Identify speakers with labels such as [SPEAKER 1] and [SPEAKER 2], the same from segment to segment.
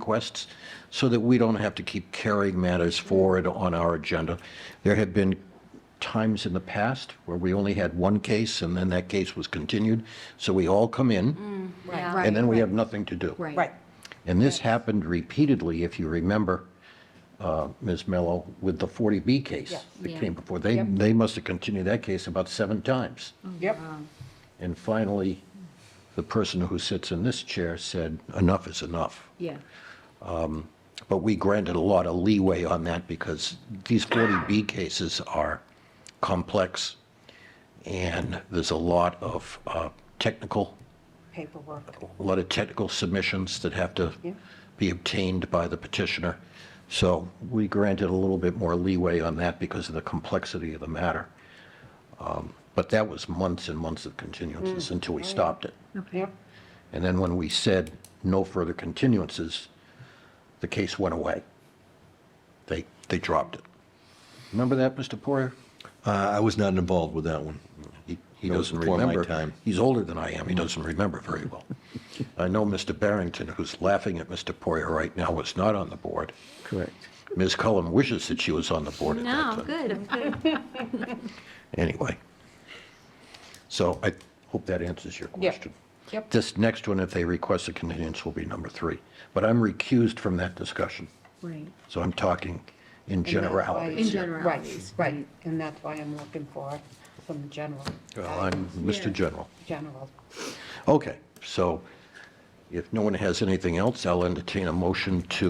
[SPEAKER 1] requests so that we don't have to keep carrying matters forward on our agenda. There have been times in the past where we only had one case and then that case was continued. So we all come in
[SPEAKER 2] Yeah.
[SPEAKER 1] and then we have nothing to do.
[SPEAKER 2] Mm. Right.
[SPEAKER 3] Right.
[SPEAKER 1] And this happened repeatedly, if you remember, uh, Ms. Mello, with the 40B case that
[SPEAKER 2] Yeah.
[SPEAKER 1] came before. They, they must have continued that case about seven times.
[SPEAKER 2] Mm.
[SPEAKER 3] Yep.
[SPEAKER 1] And finally, the person who sits in this chair said, enough is enough.
[SPEAKER 2] Yeah.
[SPEAKER 1] But we granted a lot of leeway on that because these 40B cases are complex and there's a lot of uh, technical,
[SPEAKER 3] Paperwork.
[SPEAKER 1] a lot of technical submissions that have to be obtained by the petitioner. So we granted a little bit more leeway on that because of the complexity of the matter. Um, But that was months and months of continuances until we stopped it.
[SPEAKER 3] Yep.
[SPEAKER 1] And then when we said no further continuances, the case went away. They, they dropped it. Remember that, Mr. Poirier?
[SPEAKER 4] Uh, I was not involved with that one.
[SPEAKER 1] He he
[SPEAKER 4] That was
[SPEAKER 1] doesn't
[SPEAKER 4] before my
[SPEAKER 1] remember.
[SPEAKER 4] time.
[SPEAKER 1] He's older than I am. He doesn't remember very well. I know Mr. Barrington, who's laughing at Mr. Poirier right now, was not on the board.
[SPEAKER 5] Correct.
[SPEAKER 1] Ms. Cullen wishes that she was on the board at that time.
[SPEAKER 2] No, good, I'm good.
[SPEAKER 1] Anyway. So I hope that answers your
[SPEAKER 3] Yep.
[SPEAKER 1] question.
[SPEAKER 3] Yep.
[SPEAKER 1] This next one, if they request a continuance, will be number three. But I'm recused from that discussion.
[SPEAKER 2] Right.
[SPEAKER 1] So I'm talking in generalities.
[SPEAKER 2] In
[SPEAKER 1] here.
[SPEAKER 2] generalities,
[SPEAKER 3] Right, right, and that's why I'm looking for some general.
[SPEAKER 1] Well, I'm
[SPEAKER 2] Yeah.
[SPEAKER 1] Mr. General.
[SPEAKER 3] General.
[SPEAKER 1] Okay, so if no one has anything else, I'll entertain a motion to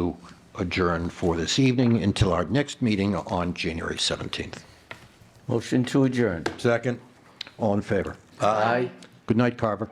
[SPEAKER 1] adjourn for this evening until our next meeting on January 17th.
[SPEAKER 5] Motion to adjourn.
[SPEAKER 4] Second?
[SPEAKER 1] All in favor?
[SPEAKER 5] Aye.
[SPEAKER 1] Good night, Carver.